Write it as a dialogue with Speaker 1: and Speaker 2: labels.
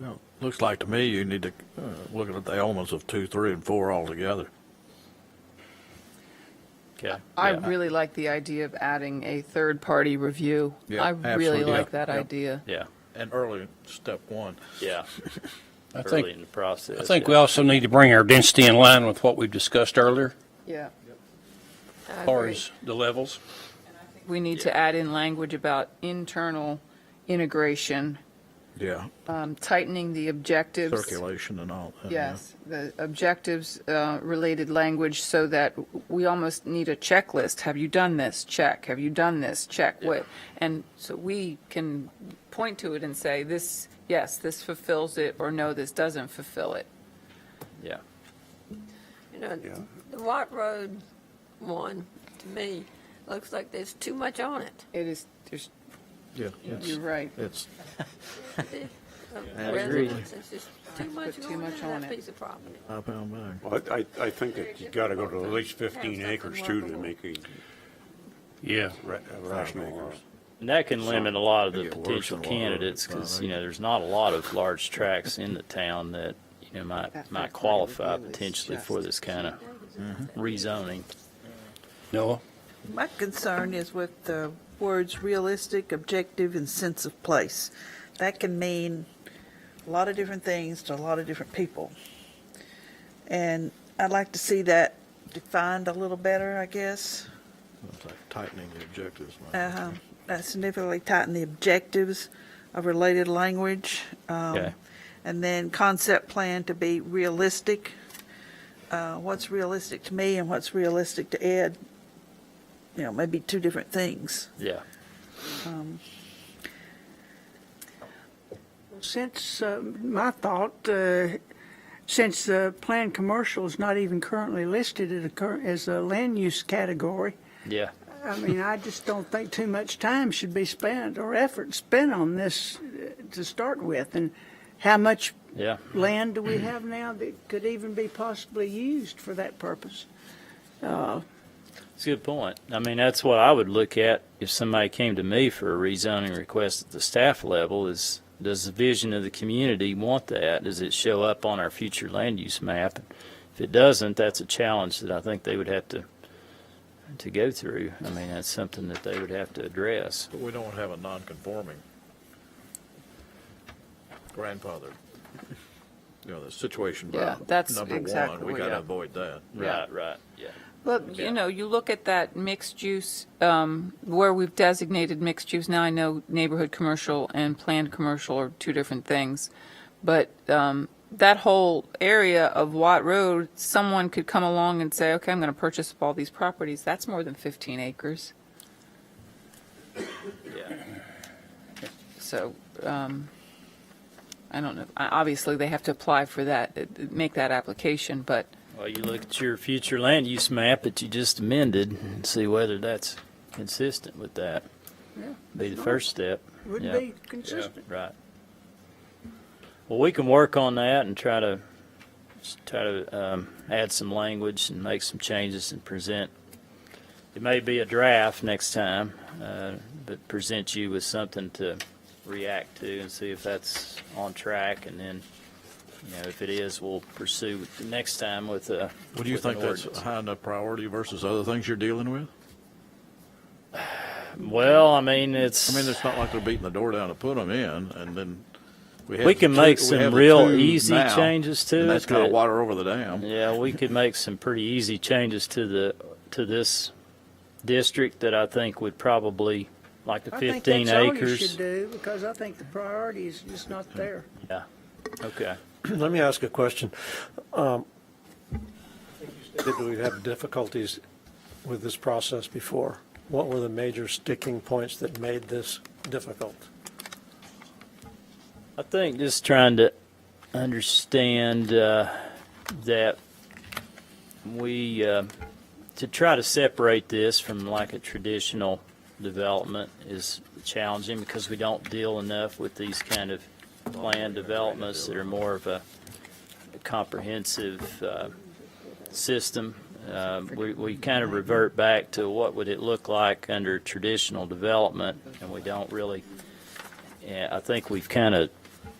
Speaker 1: Well, Looks like to me you need to uh, look at the elements of two, three, and four altogether.
Speaker 2: Okay.
Speaker 3: I
Speaker 2: Yeah.
Speaker 3: really like the idea of adding a third-party review.
Speaker 1: Yeah,
Speaker 3: I really
Speaker 1: absolutely.
Speaker 3: like
Speaker 1: Yeah,
Speaker 3: that
Speaker 1: yeah.
Speaker 3: idea.
Speaker 2: Yeah,
Speaker 1: And early, step one.
Speaker 2: yeah,
Speaker 4: I
Speaker 2: early
Speaker 4: think,
Speaker 2: in the process.
Speaker 4: I think
Speaker 2: yeah.
Speaker 4: we also need to bring our density in line with what we've discussed earlier,
Speaker 3: Yeah.
Speaker 5: I
Speaker 4: as far
Speaker 5: agree.
Speaker 4: as the levels.
Speaker 3: We need to add in language about internal integration,
Speaker 1: Yeah,
Speaker 3: um, tightening the objectives.
Speaker 1: circulation and all. that, yeah.
Speaker 3: Yes, the objectives uh, related language so that we almost need a checklist. Have you done this? Check. Have you done this? Check. What? And so we can point to it and say, this, yes, this fulfills it, or no, this doesn't fulfill it.
Speaker 2: Yeah,
Speaker 5: You know, the White Road one, to me, looks like there's too much on it.
Speaker 3: It is, there's-
Speaker 1: Yeah,
Speaker 3: you're
Speaker 1: it's,
Speaker 3: right.
Speaker 1: it's,
Speaker 5: I
Speaker 2: agree.
Speaker 5: It's just too
Speaker 3: Put
Speaker 5: much
Speaker 3: too
Speaker 5: going
Speaker 3: much
Speaker 5: into
Speaker 3: on
Speaker 5: that
Speaker 3: it.
Speaker 5: piece of property.
Speaker 1: I pound bag.
Speaker 6: Well, I, I- I think that you gotta go to at least fifteen acres too to make a
Speaker 4: Yeah.
Speaker 6: ra- a rational.
Speaker 2: and that can limit a lot of the
Speaker 1: Get worse
Speaker 2: potential
Speaker 1: in a lot of
Speaker 2: candidates
Speaker 1: it, I
Speaker 2: because
Speaker 1: think.
Speaker 2: you know there's not a lot of large tracks in the town that you know might
Speaker 3: That
Speaker 2: might
Speaker 3: fact
Speaker 2: qualify
Speaker 3: really is
Speaker 2: potentially
Speaker 3: just-
Speaker 2: for this kind of
Speaker 3: Mm-hmm.
Speaker 2: rezoning.
Speaker 4: Noah?
Speaker 7: My concern is with the words realistic, objective, and sense of place. That can mean a lot of different things to a lot of different people. And I'd like to see that defined a little better, I guess.
Speaker 1: It's like Tightening the objectives. man.
Speaker 7: Uh, that significantly tighten the objectives of related language. um,
Speaker 2: Okay.
Speaker 7: And then concept plan to be realistic. Uh, What's realistic to me and what's realistic to Ed, you know, maybe two different things.
Speaker 2: Yeah,
Speaker 8: Since, uh, my thought, uh, since the planned commercial is not even currently listed as a, cur- as a land use category,
Speaker 2: yeah,
Speaker 8: I mean, I just don't think too much time should be spent or effort spent on this uh, to start with. And how much
Speaker 2: yeah.
Speaker 8: land do we have now that could even be possibly used for that purpose? Uh,
Speaker 2: It's a good point. I mean, that's what I would look at if somebody came to me for a rezoning request at the staff level is, does the vision of the community want that? Does it show up on our future land use map? If it doesn't, that's a challenge that I think they would have to, to go through. I mean, that's something that they would have to address.
Speaker 1: But we don't have a non-conforming grandfather. You know, the situation
Speaker 3: Yeah,
Speaker 1: prob-
Speaker 3: that's
Speaker 1: number one,
Speaker 3: exactly,
Speaker 1: we gotta
Speaker 3: yeah.
Speaker 1: avoid that.
Speaker 2: Right, right, yeah.
Speaker 3: Well, you know, you look at that mixed use, um, where we've designated mixed use, now I know neighborhood commercial and planned commercial are two different things, but um, that whole area of Watt Road, someone could come along and say, okay, I'm going to purchase up all these properties, that's more than 15 acres.
Speaker 2: Yeah.
Speaker 3: So um, I don't know, I- obviously, they have to apply for that, uh, make that application, but
Speaker 2: Well, you look at your future land use map that you just amended and see whether that's consistent with that.
Speaker 8: Yeah.
Speaker 2: Be the first step.
Speaker 8: Would
Speaker 2: Yeah.
Speaker 8: be consistent.
Speaker 2: Right. Well, we can work on that and try to, try to um, add some language and make some changes and present. It may be a draft next time, uh, but present you with something to react to and see if that's on track. And then, you know, if it is, we'll pursue the next time with a.
Speaker 1: Well, do you
Speaker 2: with an
Speaker 1: think that's a
Speaker 2: ordinance.
Speaker 1: high enough priority versus other things you're dealing with?
Speaker 2: Well, I mean, it's.
Speaker 1: I mean, it's not like they're beating the door down to put them in, and then we have.
Speaker 2: We
Speaker 1: the
Speaker 2: can
Speaker 1: two-
Speaker 2: make
Speaker 1: we
Speaker 2: some
Speaker 1: have the
Speaker 2: real
Speaker 1: two
Speaker 2: easy
Speaker 1: now,
Speaker 2: changes to
Speaker 1: And that's
Speaker 2: it
Speaker 1: kind of
Speaker 2: that-
Speaker 1: water over the dam.
Speaker 2: Yeah, we could make some pretty easy changes to the, to this district that I think would probably, like the
Speaker 8: I think
Speaker 2: 15
Speaker 8: that's all you should
Speaker 2: acres.
Speaker 8: do, because I think the priority is just not there.
Speaker 2: Yeah, okay.
Speaker 9: Let me ask a question. Um, Did we have difficulties with this process before? What were the major sticking points that made this difficult?
Speaker 2: I think just trying to understand uh, that we, uh, to try to separate this from like a traditional development is challenging because we don't deal enough with these kind of planned developments that are more of a comprehensive uh, system. Um, We, we kind of revert back to what would it look like under traditional development, and we don't really yeah, I think we've kind of